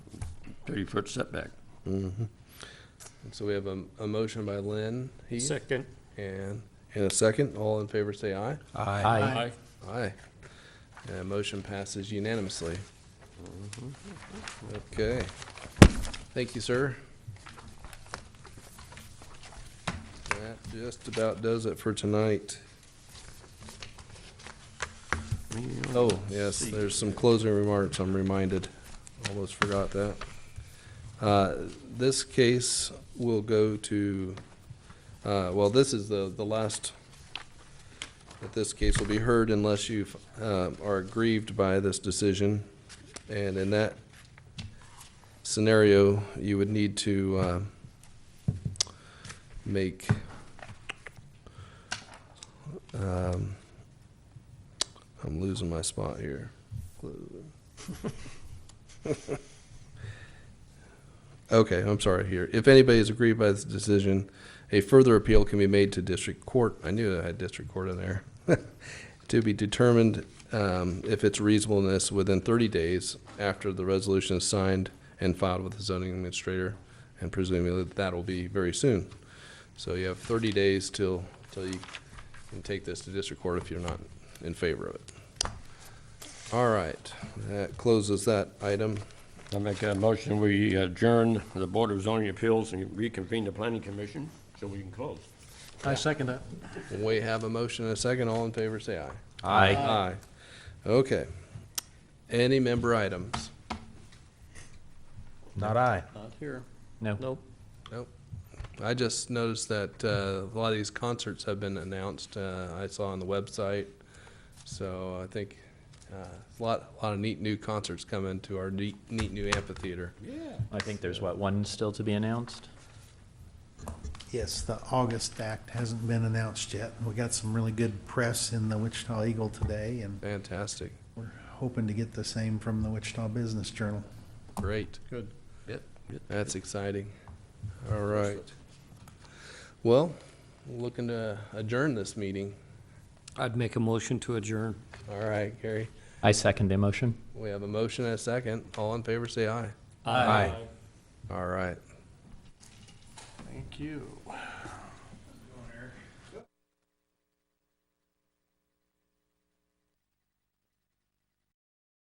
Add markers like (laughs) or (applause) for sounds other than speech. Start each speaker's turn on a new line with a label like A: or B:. A: 30-foot setback.
B: So we have a, a motion by Lynn Heath.
C: Second.
B: And, and a second. All in favor, say aye.
D: Aye.
B: Aye. And motion passes unanimously. Okay. Thank you, sir. That just about does it for tonight. Oh, yes, there's some closing remarks, I'm reminded. Almost forgot that. Uh, This case will go to, uh, well, this is the, the last that this case will be heard unless you um, are aggrieved by this decision. And in that scenario, you would need to um, make um, I'm losing my spot here. Okay, I'm sorry here. If anybody is aggrieved by this decision, a further appeal can be made to district court. I knew I had district court in there. (laughs) To be determined um, if its reasonableness within 30 days after the resolution is signed and filed with the zoning administrator, and presumably that'll be very soon. So you have 30 days till, till you can take this to district court if you're not in favor of it. All right, that closes that item.
A: I make a motion, we adjourn the Board of Zoning Appeals and reconvene the Planning Commission so we can close.
C: I second that.
B: We have a motion and a second. All in favor, say aye.
D: Aye.
B: Aye. Okay. Any member items?
D: Not aye.
C: Not here.
D: No.
C: Nope.
B: Nope. I just noticed that uh, a lot of these concerts have been announced, uh, I saw on the website. So I think uh, a lot, a lot of neat new concerts coming to our neat, neat new amphitheater.
A: Yeah.
D: I think there's, what, one still to be announced?
E: Yes, the August Act hasn't been announced yet. We got some really good press in the Wichita Eagle today, and
B: Fantastic,
E: we're hoping to get the same from the Wichita Business Journal.
B: great.
C: Good.
B: Yep, that's exciting. All right. Well, looking to adjourn this meeting.
C: I'd make a motion to adjourn.
B: All right, Gary,
D: I second the motion.
B: we have a motion and a second. All in favor, say aye.
D: Aye.
B: All right.
C: Thank you.